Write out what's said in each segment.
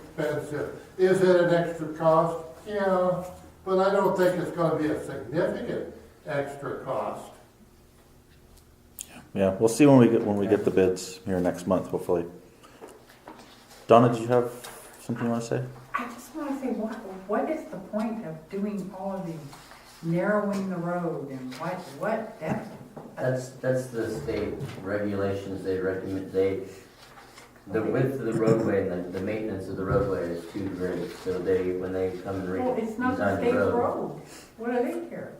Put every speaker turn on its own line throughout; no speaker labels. expensive. Is it an extra cost? Yeah, but I don't think it's gonna be a significant extra cost.
Yeah, we'll see when we get, when we get the bids here next month, hopefully. Donna, did you have something you wanna say?
I just want to say, what, what is the point of doing all of these, narrowing the road and what, what, that,
That's, that's the state regulations, they recommend, they, the width of the roadway and the, the maintenance of the roadway is too great, so they, when they come and
well, it's not the
redesign
state's
the road.
road. What do they care?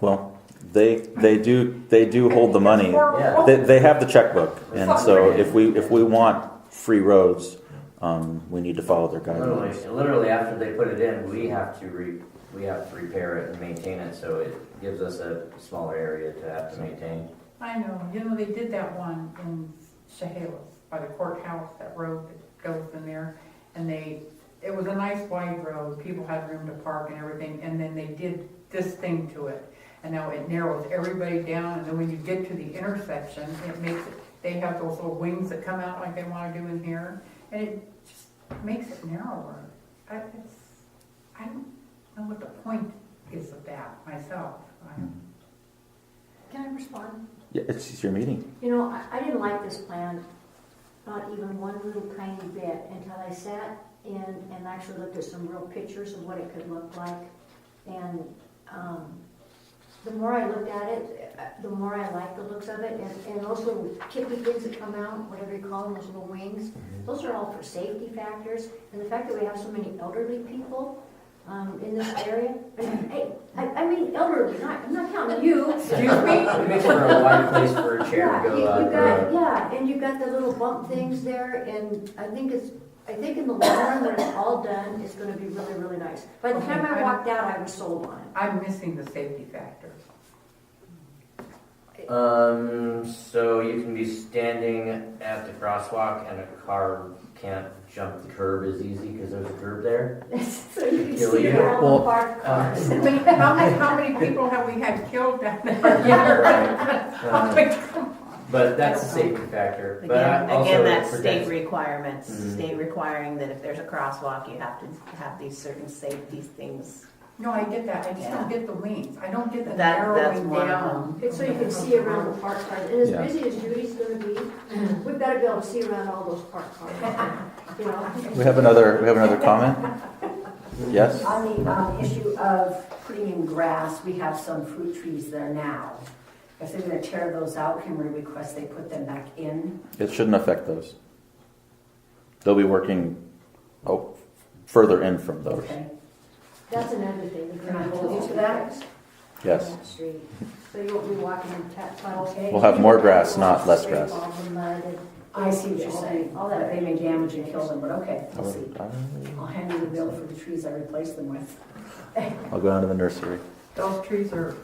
Well, they, they do, they do hold the money.
Yeah.
They, they have the checkbook, and so if we, if we want free roads, um, we need to follow their
Literally,
guidelines.
literally after they put it in, we have to re, we have to repair it and maintain it, so it gives us a smaller area to have to maintain.
I know, you know, they did that one in Chehalis by the courthouse, that road that goes in there. And they, it was a nice wide road, people had room to park and everything, and then they did this thing to it. And now it narrows everybody down, and then when you get to the intersection, it makes it, they have those little wings that come out like they wanna do in here. And it just makes it narrower. I, it's, I don't know what the point is of that myself. I-
Can I respond?
Yeah, it's, it's your meeting.
You know, I, I didn't like this plan, not even one little tiny bit, until I sat and, and actually looked at some real pictures of what it could look like. And, um, the more I looked at it, uh, the more I liked the looks of it, and, and those little tippy things that come out, whatever you call them, those little wings, those are all for safety factors, and the fact that we have so many elderly people, um, in this area, I mean, hey, I, I mean elderly, not, I'm not counting you.
Excuse me?
It makes for a wide place for a chair
Yeah,
to
you-
go
you
out.
uh,
got- Yeah, and you got the little bump things there, and I think it's, I think in the long run, when it's all done, it's gonna be really, really nice. By the time I walked out, I was sold on it.
I'm missing the safety factor.
Um, so you can be standing at the crosswalk and a car can't jump the curb as easy because there's a curb there.
So you can
Kill
see
you.
all
Well,
the parked
uh,
cars.
But how many, how many people have we had killed down there?
Yeah, right.
I'm
Um,
like, come on.
But that's a safety factor. But I
Again,
also
again, that's
protect-
state requirements,
Mm-hmm.
Mhm.
state requiring that if there's a crosswalk, you have to have these certain safety things.
No, I get that, I just don't get the wings, I don't get the
That- that's
narrowing
one of
down.
It's so you can see around the parked cars, and as
Yeah.
busy as Judy's gonna be, we've gotta be able to see around all those parked cars, you know?
We have another, we have another comment? Yes?
On the um, issue of putting in grass, we have some fruit trees there now. If they're gonna tear those out, can we request they put them back in?
It shouldn't affect those. They'll be working, oh, further in from those.
Okay.
That's another thing, we're
Can I
gonna
hold you
hold
to that?
Yes.
Street. So you won't be walking in tap puddles.
We'll have more grass, not less grass.
All the mud and-
I see what you're saying,
All that-
that they may damage and kill them, but okay,
I
we'll see.
would- I would-
I'll hand you the bill for the trees I replaced them with.
I'll go down to the nursery.
Those trees are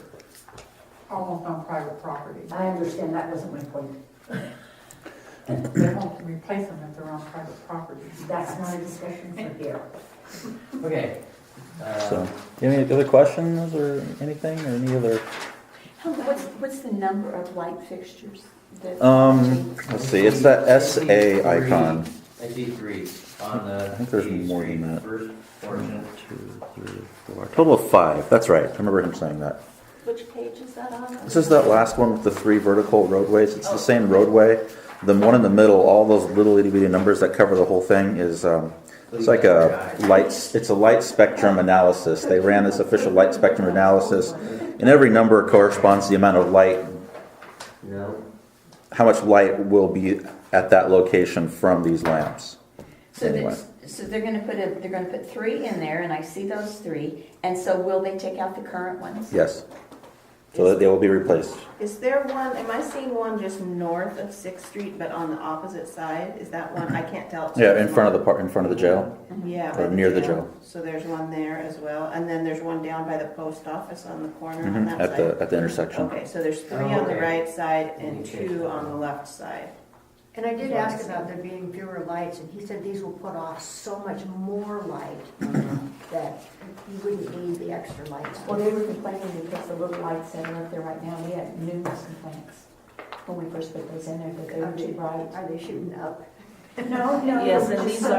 almost on private property.
I understand that wasn't my point.
They won't replace them if they're on private property.
That's not a discussion for here.
Okay. Uh,
So, any other questions or anything, or any other?
What's, what's the number of light fixtures? that-
Um, let's see, it's that SA icon.
I see three on the.
I think there's
East
more than
Street
that.
First
One,
portion.
two, three, four. Total of five, that's right, I remember him saying that.
Which page is that on?
This is that last one with the three vertical roadways, it's the same roadway. The one in the middle, all those little itty bitty numbers that cover the whole thing is, um, it's like a lights, it's a light spectrum analysis. They ran this official light spectrum analysis, and every number corresponds to the amount of light,
No.
how much light will be at that location from these lamps.
So
Anyway.
that's, so they're gonna put a, they're gonna put three in there, and I see those three, and so will they take out the current ones?
Yes. So that they will be replaced.
Is there one, am I seeing one just north of Sixth Street, but on the opposite side? Is that one, I can't tell. it's
Yeah,
too
in front of the
small.
park, in front of the jail.
Yeah.
or
by
near the jail.
So there's one there as well, and then there's one down by the post office on the corner on
Mhm,
that
At
side.
the, at the intersection.
Okay, so there's three
Oh,
on the
okay.
right side and
Okay.
two on the left side.
And I did ask about there being fewer lights, and he said these will put off so much more light that you wouldn't need the extra lights.
Uh-huh. Well, they were complaining because the little lights that are up there right now, we had numerous complaints when we first put those in there, that they were too bright.
Are they shooting up?
No, no.
Yes, and these